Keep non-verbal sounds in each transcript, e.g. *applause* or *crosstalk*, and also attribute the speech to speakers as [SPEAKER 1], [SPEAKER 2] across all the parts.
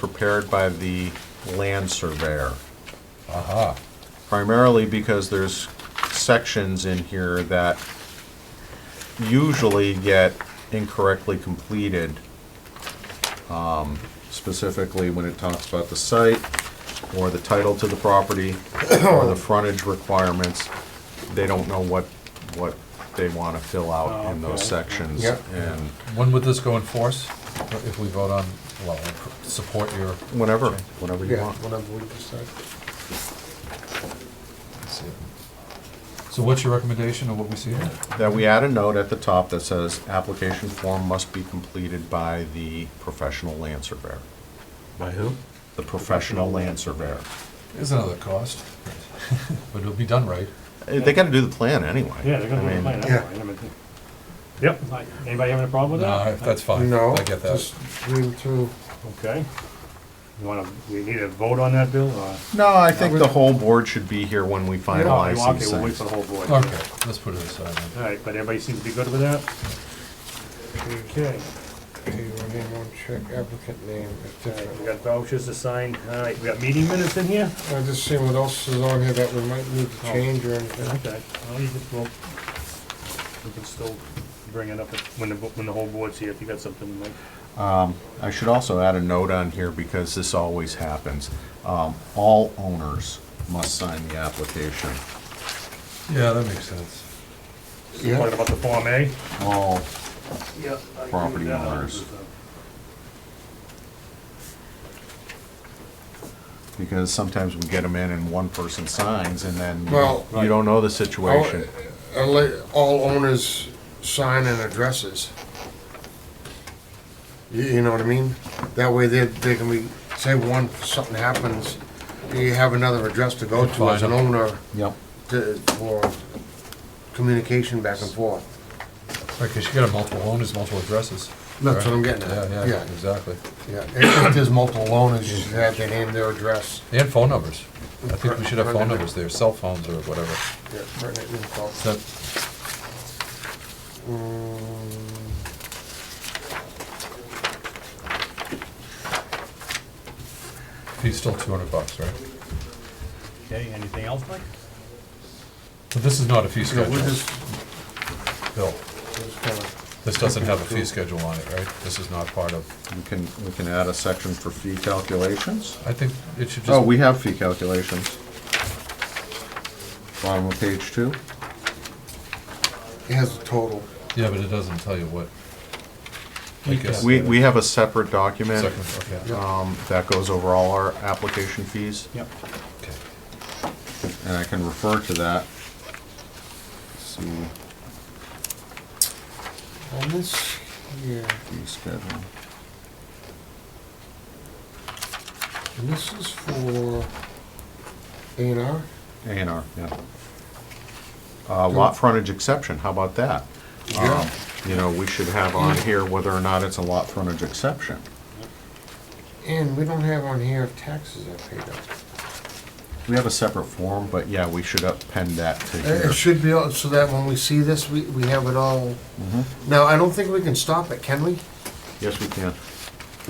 [SPEAKER 1] prepared by the land surveyor,
[SPEAKER 2] Aha.
[SPEAKER 1] primarily because there's sections in here that usually get incorrectly completed, um, specifically when it talks about the site, or the title to the property, or the frontage requirements. They don't know what, what they want to fill out in those
[SPEAKER 3] Okay.
[SPEAKER 1] sections.
[SPEAKER 2] Oh, Yep.
[SPEAKER 1] And
[SPEAKER 4] When would this go in force, if we vote on, well, support your,
[SPEAKER 1] whenever, whenever you
[SPEAKER 2] Yeah,
[SPEAKER 1] want.
[SPEAKER 2] whenever we decide.
[SPEAKER 4] let's see. So what's your recommendation of what we see here?
[SPEAKER 1] That we add a note at the top that says, application form must be completed by the professional land surveyor.
[SPEAKER 3] By who?
[SPEAKER 1] The professional land surveyor.
[SPEAKER 4] Is another cost, *laughs* but it'll be done right.
[SPEAKER 1] Eh, They gotta do the plan anyway.
[SPEAKER 3] Yeah, they're gonna
[SPEAKER 1] I
[SPEAKER 3] do it
[SPEAKER 1] mean,
[SPEAKER 3] mine,
[SPEAKER 2] yeah.
[SPEAKER 3] that's fine. I mean, Yep, like, anybody having a problem with
[SPEAKER 4] No,
[SPEAKER 3] that?
[SPEAKER 4] that's fine,
[SPEAKER 2] No,
[SPEAKER 4] I get that.
[SPEAKER 2] just read through.
[SPEAKER 3] Okay. You wanna, we need a vote on that, Bill, or?
[SPEAKER 1] No, I think the whole board should be here when we
[SPEAKER 3] Okay,
[SPEAKER 1] finalize these
[SPEAKER 3] we'll wait
[SPEAKER 1] things.
[SPEAKER 3] for the whole board.
[SPEAKER 4] Okay, let's put it aside then.
[SPEAKER 3] All right, but everybody seems to be good with that? Okay,
[SPEAKER 2] Do you want anyone check applicant name, et
[SPEAKER 3] all right, we
[SPEAKER 2] cetera?
[SPEAKER 3] got vouchers to sign, all right, we got meeting minutes in here?
[SPEAKER 2] I just seen what else is on here that we might need to change or anything.
[SPEAKER 3] Okay, well, you just, well, we can still bring it up if- when the, when the whole board's here, if you got something like,
[SPEAKER 1] I should also add a note on here because this always happens. Um, all owners must sign the application.
[SPEAKER 4] Yeah, that makes sense.
[SPEAKER 3] talking
[SPEAKER 2] Yeah,
[SPEAKER 3] about the Form A?
[SPEAKER 1] All,
[SPEAKER 3] Yep.
[SPEAKER 1] Property owners. because sometimes we get them in and one person signs and then
[SPEAKER 2] Well-
[SPEAKER 1] you don't know the situation.
[SPEAKER 2] Unle- Uh, all owners sign and addresses. You, you know what I mean? That way they, they can be, say one, something happens, you have another address to go to as an owner
[SPEAKER 1] Yep.
[SPEAKER 2] to, for communication back and forth.
[SPEAKER 4] Right, because you got a multiple owners, multiple addresses.
[SPEAKER 2] That's what I'm getting
[SPEAKER 4] Yeah,
[SPEAKER 2] at,
[SPEAKER 4] yeah,
[SPEAKER 2] yeah.
[SPEAKER 4] exactly.
[SPEAKER 2] Yeah, if if there's multiple owners, you should have their name, their address.
[SPEAKER 4] And phone numbers. I think we should have phone
[SPEAKER 2] Right.
[SPEAKER 4] numbers there, cell phones or whatever.
[SPEAKER 2] Yeah, right, right, right, call.
[SPEAKER 4] Is that,
[SPEAKER 2] Mm,
[SPEAKER 4] fee's still two hundred bucks, right?
[SPEAKER 3] Okay, anything else, Mike?
[SPEAKER 4] But this is not a fee
[SPEAKER 2] No,
[SPEAKER 4] schedule,
[SPEAKER 2] we're just,
[SPEAKER 4] Bill.
[SPEAKER 2] we're just kinda,
[SPEAKER 4] This doesn't have a fee schedule on it, right? This is not part of,
[SPEAKER 1] We can, we can add a section for fee calculations.
[SPEAKER 4] I think it should just.
[SPEAKER 1] Oh, we have fee calculations. Bottom of page two.
[SPEAKER 2] it has a total.
[SPEAKER 4] Yeah, but it doesn't tell you what. I guess-
[SPEAKER 1] We, we have a separate document
[SPEAKER 4] Second, okay,
[SPEAKER 2] Yeah.
[SPEAKER 1] um, that goes over all our application fees,
[SPEAKER 3] Yep.
[SPEAKER 4] okay.
[SPEAKER 1] and I can refer to that. See
[SPEAKER 2] On this here,
[SPEAKER 1] fee schedule.
[SPEAKER 2] and this is for A and R,
[SPEAKER 1] A and R, yeah. Uh, Lot frontage exception, how about that?
[SPEAKER 2] Yeah.
[SPEAKER 1] Um, You know, we should have on here whether or not it's a lot frontage exception.
[SPEAKER 2] and we don't have on here if taxes are paid up.
[SPEAKER 1] We have a separate form, but yeah, we should append that to
[SPEAKER 2] It it
[SPEAKER 1] here.
[SPEAKER 2] should be, all- so that when we see this, we, we have it all.
[SPEAKER 1] Mm-hmm.
[SPEAKER 2] Now, I don't think we can stop it, can we?
[SPEAKER 1] Yes, we can.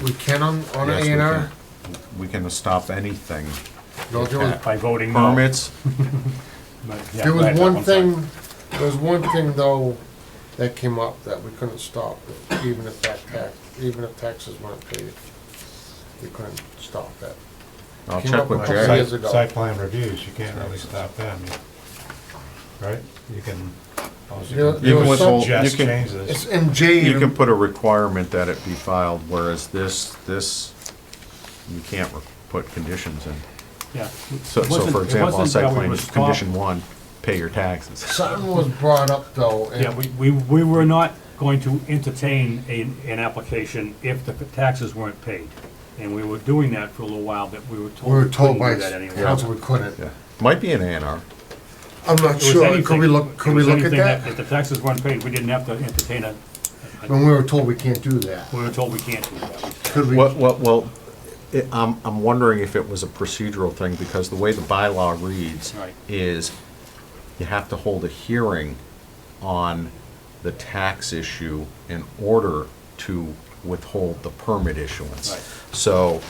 [SPEAKER 2] We can on, on A
[SPEAKER 1] Yes, we
[SPEAKER 2] and R?
[SPEAKER 1] can. We can stop anything.
[SPEAKER 2] No, there was-
[SPEAKER 3] By voting no.
[SPEAKER 1] Permits,
[SPEAKER 3] But, yeah,
[SPEAKER 2] There
[SPEAKER 3] go ahead,
[SPEAKER 2] was
[SPEAKER 3] Bill,
[SPEAKER 2] one
[SPEAKER 3] I'm sorry.
[SPEAKER 2] thing, there was one thing though, that came up that we couldn't stop, even if that tax, even if taxes weren't paid. We couldn't stop that.
[SPEAKER 1] I'll
[SPEAKER 2] Came
[SPEAKER 1] check
[SPEAKER 2] up with
[SPEAKER 1] with
[SPEAKER 2] a
[SPEAKER 1] Jay.
[SPEAKER 2] site-
[SPEAKER 5] Site site plan reviews, you can't really stop them, right? You can, all
[SPEAKER 2] There-
[SPEAKER 5] you
[SPEAKER 2] there
[SPEAKER 5] can
[SPEAKER 1] Even
[SPEAKER 2] was
[SPEAKER 1] with
[SPEAKER 2] some-
[SPEAKER 1] whole- you
[SPEAKER 5] just
[SPEAKER 1] can-
[SPEAKER 5] change
[SPEAKER 2] It's
[SPEAKER 5] this.
[SPEAKER 2] in J.
[SPEAKER 1] You can put a requirement that it be filed, whereas this, this, you can't re- put conditions in.
[SPEAKER 3] Yeah.
[SPEAKER 1] So,
[SPEAKER 3] It
[SPEAKER 1] so
[SPEAKER 3] wasn't-
[SPEAKER 1] for
[SPEAKER 3] it
[SPEAKER 1] example, on
[SPEAKER 3] wasn't
[SPEAKER 1] site
[SPEAKER 3] that we
[SPEAKER 1] plan,
[SPEAKER 3] were
[SPEAKER 1] it's condition
[SPEAKER 3] stop-
[SPEAKER 1] one, pay your taxes.
[SPEAKER 2] Something was brought up though,
[SPEAKER 3] Yeah,
[SPEAKER 2] and
[SPEAKER 3] we, we, we were not going to entertain a, an application if the taxes weren't paid. And we were doing that for a little while, but we were
[SPEAKER 2] we
[SPEAKER 3] told
[SPEAKER 2] were
[SPEAKER 3] we
[SPEAKER 2] told
[SPEAKER 3] couldn't
[SPEAKER 2] by
[SPEAKER 3] do that anymore.
[SPEAKER 2] council we couldn't.
[SPEAKER 1] Yeah. Might be an A and R.
[SPEAKER 2] I'm not
[SPEAKER 3] It was
[SPEAKER 2] sure, could
[SPEAKER 3] anything-
[SPEAKER 2] we look,
[SPEAKER 3] it
[SPEAKER 2] could we
[SPEAKER 3] was
[SPEAKER 2] look at
[SPEAKER 3] anything
[SPEAKER 2] that?
[SPEAKER 3] If the taxes weren't paid, we didn't have to entertain it.
[SPEAKER 2] When we were told we can't do that,
[SPEAKER 3] We were told we can't do that.
[SPEAKER 2] could we?
[SPEAKER 1] Well, well, well, it- I'm, I'm wondering if it was a procedural thing, because the way the bylaw reads
[SPEAKER 3] Right.
[SPEAKER 1] is you have to hold a hearing on the tax issue in order to withhold the permit issuance.
[SPEAKER 3] Right.
[SPEAKER 1] So